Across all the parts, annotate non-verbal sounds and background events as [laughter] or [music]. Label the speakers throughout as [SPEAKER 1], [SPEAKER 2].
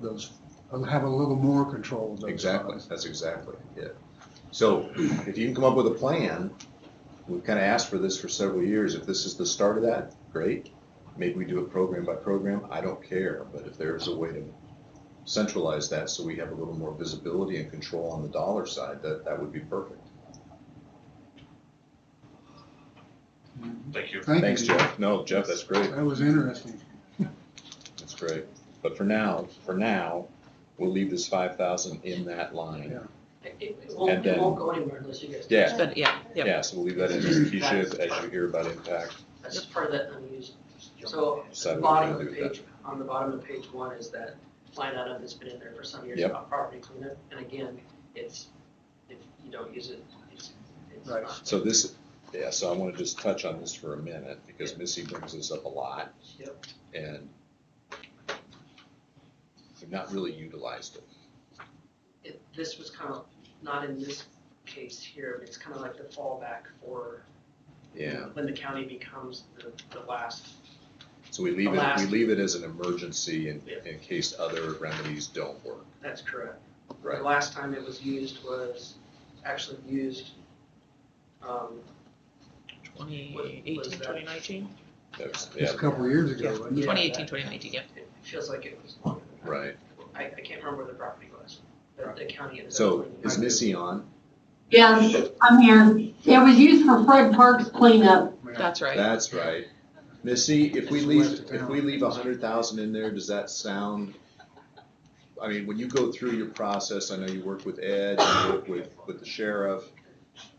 [SPEAKER 1] those, uh, have a little more control of those
[SPEAKER 2] Exactly,
[SPEAKER 1] funds.
[SPEAKER 2] that's exactly it. So [clears throat] if you can come up with a plan, we've kind of asked for this for several years, if this is the start of that, great. Maybe we do it program by program, I don't care, but if there's a way to centralize that so we have a little more visibility and control on the dollar side, that, that would be perfect.
[SPEAKER 3] Thank you.
[SPEAKER 1] Thank
[SPEAKER 2] Thanks,
[SPEAKER 1] you.
[SPEAKER 2] Jeff. No, Jeff, that's great,
[SPEAKER 1] That was interesting.
[SPEAKER 2] that's great. But for now, for now, we'll leave this five thousand in that line.
[SPEAKER 1] Yeah.
[SPEAKER 4] It, it won't,
[SPEAKER 2] And
[SPEAKER 4] it
[SPEAKER 2] then-
[SPEAKER 4] won't go anywhere unless you guys.
[SPEAKER 2] Yeah.
[SPEAKER 5] But, yeah, yeah.
[SPEAKER 2] Yeah, so we'll leave that in as Keisha, as you hear about impact.
[SPEAKER 4] That's just part of that unused. So
[SPEAKER 2] decide what we're
[SPEAKER 4] the bottom
[SPEAKER 2] gonna
[SPEAKER 4] of
[SPEAKER 2] do with that.
[SPEAKER 4] page, on the bottom of page one is that line item that's been in there for some years
[SPEAKER 2] Yep.
[SPEAKER 4] about property cleanup. And again, it's, if you don't use it, it's, it's
[SPEAKER 1] Right.
[SPEAKER 4] not.
[SPEAKER 2] So this, yeah, so I want to just touch on this for a minute because Missy brings this up a lot
[SPEAKER 4] Yep.
[SPEAKER 2] and we've not really utilized it.
[SPEAKER 4] It, this was kind of, not in this case here, but it's kind of like the fallback for
[SPEAKER 2] Yeah,
[SPEAKER 4] when the county becomes the, the last.
[SPEAKER 2] so we leave
[SPEAKER 4] The
[SPEAKER 2] it, we
[SPEAKER 4] last-
[SPEAKER 2] leave it as an emergency in,
[SPEAKER 4] Yeah.
[SPEAKER 2] in case other remedies don't work,
[SPEAKER 4] That's correct.
[SPEAKER 2] right?
[SPEAKER 4] The last time it was used was actually used, um, was
[SPEAKER 5] 2018,
[SPEAKER 4] that?
[SPEAKER 5] 2019?
[SPEAKER 2] That was- Yeah,
[SPEAKER 1] Just a couple of years ago, wasn't it?
[SPEAKER 4] Yeah.
[SPEAKER 5] 2018, 2019, yeah.
[SPEAKER 4] it feels like it was longer than that.
[SPEAKER 2] right.
[SPEAKER 4] I, I can't remember where the property was, but the county ended up.
[SPEAKER 2] So
[SPEAKER 4] cleaning
[SPEAKER 2] is
[SPEAKER 4] it.
[SPEAKER 2] Missy on?
[SPEAKER 6] Yes, I'm here. It was used for Fred Park's cleanup.
[SPEAKER 1] Yeah.
[SPEAKER 5] That's right.
[SPEAKER 2] That's right. Missy, if we
[SPEAKER 1] Just
[SPEAKER 2] leave,
[SPEAKER 1] left it
[SPEAKER 2] if
[SPEAKER 1] down.
[SPEAKER 2] we leave a hundred thousand in there, does that sound? I mean, when you go through your process, I know you work with Ed, you work with, with the sheriff,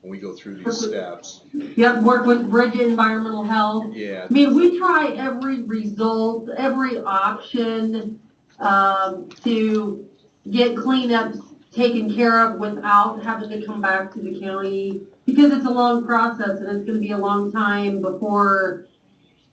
[SPEAKER 2] when we go through these steps,
[SPEAKER 6] Yep, worked with Bridget Environmental Health.
[SPEAKER 2] yeah,
[SPEAKER 6] I mean, we try every result, every option, um, to get cleanups taken care of without having to come back to the county. Because it's a long process and it's gonna be a long time before,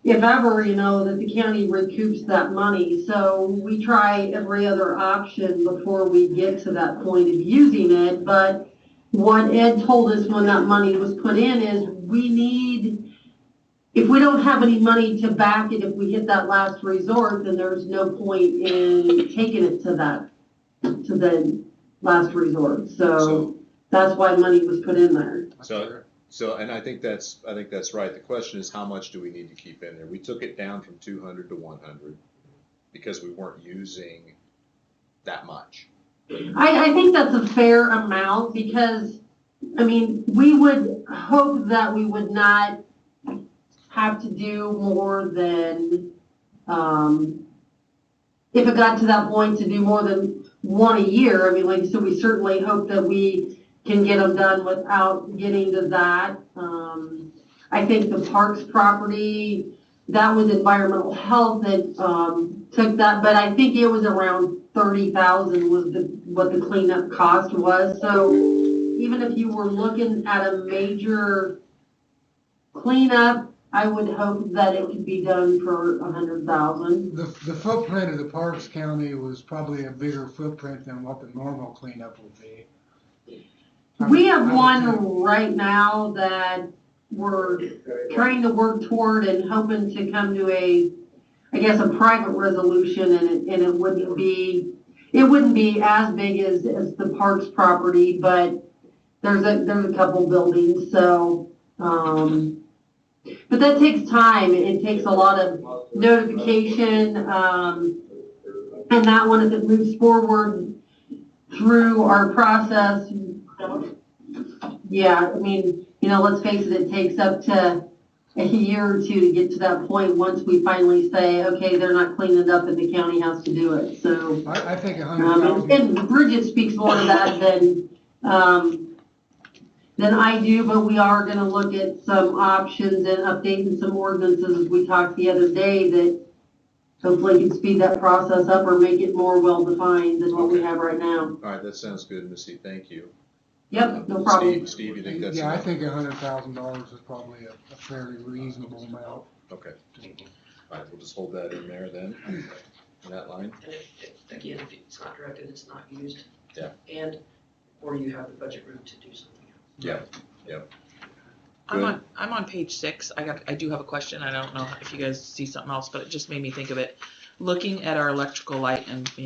[SPEAKER 6] if ever, you know, that the county recoups that money. So we try every other option before we get to that point of using it. But what Ed told us when that money was put in is we need if we don't have any money to back it, if we hit that last resort, then there's no point in taking it to that, to the last resort.
[SPEAKER 2] So-
[SPEAKER 6] So that's why money was put in there.
[SPEAKER 2] So- so, and I think that's, I think that's right, the question is how much do we need to keep in there? We took it down from two hundred to one hundred, because we weren't using that much.
[SPEAKER 6] I, I think that's a fair amount because, I mean, we would hope that we would not have to do more than, um, if it got to that point to do more than one a year, I mean, like, so we certainly hope that we can get them done without getting to that. Um, I think the parks property, that was environmental health that, um, took that, but I think it was around thirty thousand was the, what the cleanup cost was, so even if you were looking at a major cleanup, I would hope that it could be done for a hundred thousand.
[SPEAKER 1] The, the footprint of the Parks County was probably a bigger footprint than what the normal cleanup would be. I
[SPEAKER 6] We
[SPEAKER 1] would- I
[SPEAKER 6] have
[SPEAKER 1] would think.
[SPEAKER 6] one right now that we're trying to work toward and hoping to come to a, I guess, a private resolution and it, and it wouldn't be, it wouldn't be as big as, as the parks property, but there's a, there's a couple buildings, so, um, but that takes time. It it takes a lot of notification, um, and that one, as it moves forward through our process, yeah, I mean, you know, let's face it, it takes up to a year or two to get to that point, once we finally say, okay, they're not cleaning up and the county has to do it, so.
[SPEAKER 1] I, I think a hundred
[SPEAKER 6] Um,
[SPEAKER 1] thousand,
[SPEAKER 6] and Bridget speaks more to that than, um, than I do, but we are gonna look at some options and updating some ordinances, as we talked the other day, that hopefully can speed that process up or make it more well-defined than what we have right now.
[SPEAKER 2] All right, that sounds good, Missy, thank you.
[SPEAKER 6] Yep, no
[SPEAKER 2] Steve-
[SPEAKER 6] problem.
[SPEAKER 2] Steve, you think that's
[SPEAKER 1] yeah, I
[SPEAKER 2] enough?
[SPEAKER 1] think a hundred thousand dollars is probably a a fairly reasonable amount.
[SPEAKER 2] Okay. All right, we'll just hold that in there then, in that line.
[SPEAKER 4] And if- if- Again, if it's not directed, it's not used.
[SPEAKER 2] Yeah.
[SPEAKER 4] And, or you have the budget room to do something else.
[SPEAKER 5] I'm
[SPEAKER 2] Good.
[SPEAKER 5] on, I'm on page six. I got, I do have a question. I don't know if you guys see something else, but it just made me think of it. Looking at our electrical light and, you